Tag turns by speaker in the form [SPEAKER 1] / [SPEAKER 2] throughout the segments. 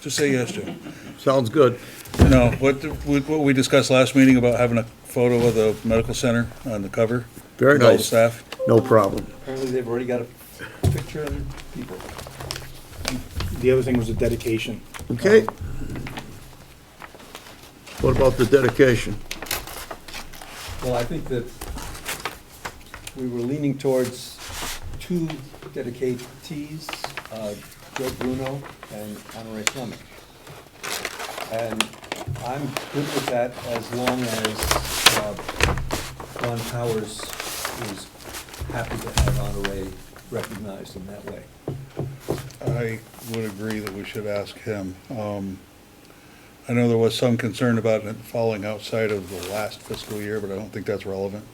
[SPEAKER 1] Just say yes, Jim.
[SPEAKER 2] Sounds good.
[SPEAKER 1] No, what, the- what we discussed last meeting about having a photo of the medical center on the cover.
[SPEAKER 2] Very
[SPEAKER 1] with all the
[SPEAKER 2] nice.
[SPEAKER 1] Staff.
[SPEAKER 2] No problem.
[SPEAKER 3] Apparently, they've already got a picture of the people.
[SPEAKER 4] The other thing was the dedication.
[SPEAKER 2] Okay? What about the dedication?
[SPEAKER 3] Well, I think that we were leaning towards two dedicatees, uh, Joe Bruno and Honore Fleming. And I'm good with that as long as uh, Ron Powers is happy to have Honore recognized in that way.
[SPEAKER 1] I would agree that we should ask him. Um, I know there was some concern about it falling outside of the last fiscal year, but I don't think that's relevant.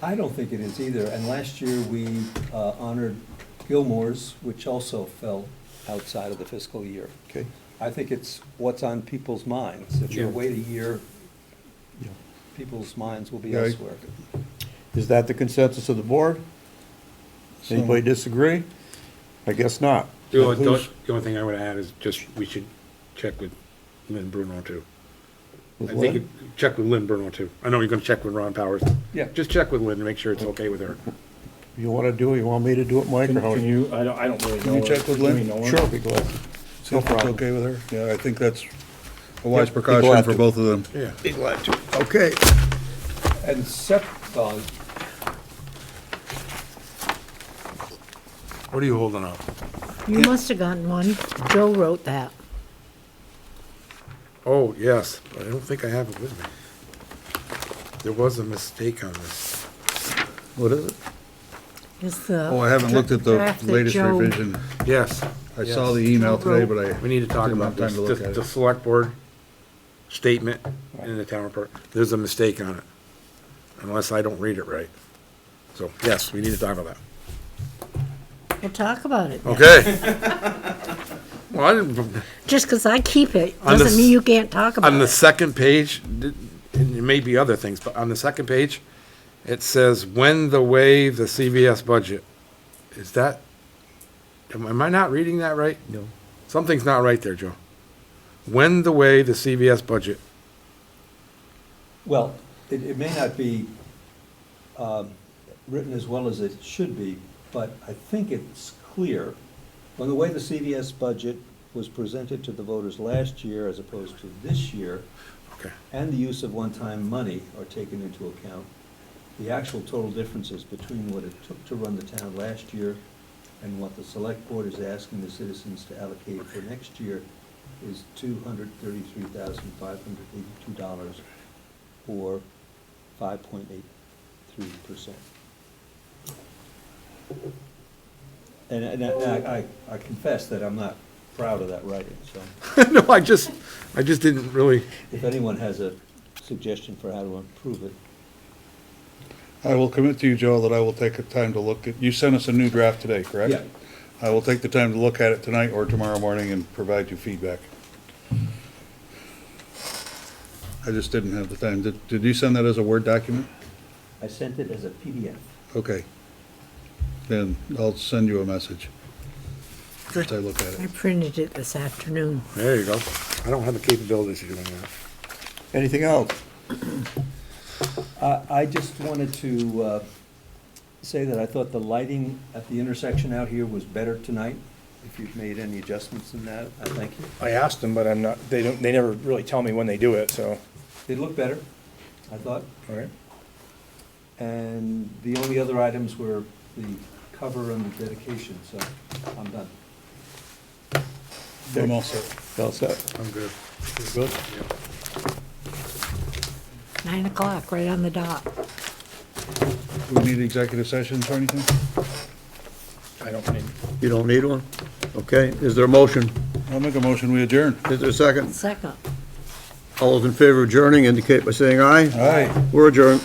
[SPEAKER 3] I don't think it is either, and last year we uh, honored Gilmore's, which also fell outside of the fiscal year.
[SPEAKER 2] Okay.
[SPEAKER 3] I think it's what's on people's minds. If you
[SPEAKER 5] Yeah.
[SPEAKER 3] wait a year, people's minds will be
[SPEAKER 1] Yeah, I-
[SPEAKER 3] elsewhere.
[SPEAKER 2] Is that the consensus of the board?
[SPEAKER 1] So-
[SPEAKER 2] Anybody disagree? I guess not.
[SPEAKER 5] The only,
[SPEAKER 2] Who's-
[SPEAKER 5] the only thing I would add is just, we should check with Lynn Bruno too. I
[SPEAKER 2] With
[SPEAKER 5] think,
[SPEAKER 2] what?
[SPEAKER 5] you- check with Lynn Bruno too. I know you're gonna check with Ron Powers.
[SPEAKER 3] Yeah.
[SPEAKER 5] Just check with Lynn, and make sure it's okay with her.
[SPEAKER 2] You want to do it? You want me to do it, Mike, or
[SPEAKER 4] Can
[SPEAKER 2] how?
[SPEAKER 4] can you, I don't, I don't really know.
[SPEAKER 1] Can you check with
[SPEAKER 4] Do we
[SPEAKER 1] Lynn?
[SPEAKER 4] know her?
[SPEAKER 2] Sure, be glad.
[SPEAKER 1] See if that's
[SPEAKER 2] problem.
[SPEAKER 1] okay with her? Yeah, I think that's a wise
[SPEAKER 2] Yep, be
[SPEAKER 1] precaution
[SPEAKER 2] glad
[SPEAKER 1] for
[SPEAKER 2] to.
[SPEAKER 1] both of them.
[SPEAKER 5] Yeah.
[SPEAKER 2] Okay,
[SPEAKER 3] And sep, uh,
[SPEAKER 5] What are you holding up?
[SPEAKER 6] You must have gotten one. Joe wrote that.
[SPEAKER 5] Oh, yes, but I don't think I have it with me. There was a mistake on this.
[SPEAKER 2] what is it?
[SPEAKER 6] It's the.
[SPEAKER 1] Oh, I haven't looked at the
[SPEAKER 6] draft that
[SPEAKER 1] latest
[SPEAKER 6] Joe-
[SPEAKER 1] revision.
[SPEAKER 5] Yes.
[SPEAKER 1] I saw the email today, but I.
[SPEAKER 5] We need to talk
[SPEAKER 1] didn't have
[SPEAKER 5] about this,
[SPEAKER 1] time to
[SPEAKER 5] the,
[SPEAKER 1] look at
[SPEAKER 5] the
[SPEAKER 1] it.
[SPEAKER 5] select board statement in the town report, there's a mistake on it, unless I don't read it right. So, yes, we need to talk about that.
[SPEAKER 6] We'll talk about it.
[SPEAKER 5] Okay. Well, I didn't,
[SPEAKER 6] Just because I keep it
[SPEAKER 5] On this-
[SPEAKER 6] doesn't mean you can't talk about
[SPEAKER 5] on the
[SPEAKER 6] it.
[SPEAKER 5] second page, th- and it may be other things, but on the second page, it says, when the wave the CVS budget. Is that, am am I not reading that right? No. Something's not right there, Joe. When the wave the CVS budget.
[SPEAKER 3] well, it, it may not be um, written as well as it should be, but I think it's clear. When the way the CVS budget was presented to the voters last year as opposed to this year,
[SPEAKER 5] Okay.
[SPEAKER 3] and the use of one-time money are taken into account, the actual total differences between what it took to run the town last year and what the select board is asking the citizens to allocate for next year is two hundred thirty-three thousand five hundred eighty-two dollars, or five point eight three percent. And, and I, I I confess that I'm not proud of that writing, so.
[SPEAKER 5] no, I just, I just didn't really.
[SPEAKER 3] If anyone has a suggestion for how to improve it,
[SPEAKER 1] I will commit to you, Joe, that I will take the time to look at, you sent us a new draft today, correct?
[SPEAKER 3] Yeah.
[SPEAKER 1] I will take the time to look at it tonight or tomorrow morning and provide you feedback. I just didn't have the time. Did, did you send that as a Word document?
[SPEAKER 3] I sent it as a PDF.
[SPEAKER 1] Okay. Then I'll send you a message. As I look at
[SPEAKER 6] I
[SPEAKER 1] it.
[SPEAKER 6] printed it this afternoon.
[SPEAKER 5] There you go. I don't have the capabilities of doing that.
[SPEAKER 2] Anything else?
[SPEAKER 3] I, Uh, I just wanted to uh, say that I thought the lighting at the intersection out here was better tonight. If you've made any adjustments in that, I thank you.
[SPEAKER 4] I asked them, but I'm not, they don't, they never really tell me when they do it, so.
[SPEAKER 3] They looked better, I thought.
[SPEAKER 4] All right.
[SPEAKER 3] And the only other items were the cover and the dedication, so I'm done.
[SPEAKER 1] I'm all set.
[SPEAKER 2] All set?
[SPEAKER 5] I'm good.
[SPEAKER 2] Good?
[SPEAKER 6] Nine o'clock, right on the dot.
[SPEAKER 1] Do we need executive sessions or anything?
[SPEAKER 4] I don't need.
[SPEAKER 2] You don't need one? Okay, is there a motion?
[SPEAKER 1] I'll make a motion, we adjourn.
[SPEAKER 2] Is there a second?
[SPEAKER 6] Second.
[SPEAKER 2] All those in favor of adjourning indicate by saying aye.
[SPEAKER 1] Aye.
[SPEAKER 2] We're adjourned.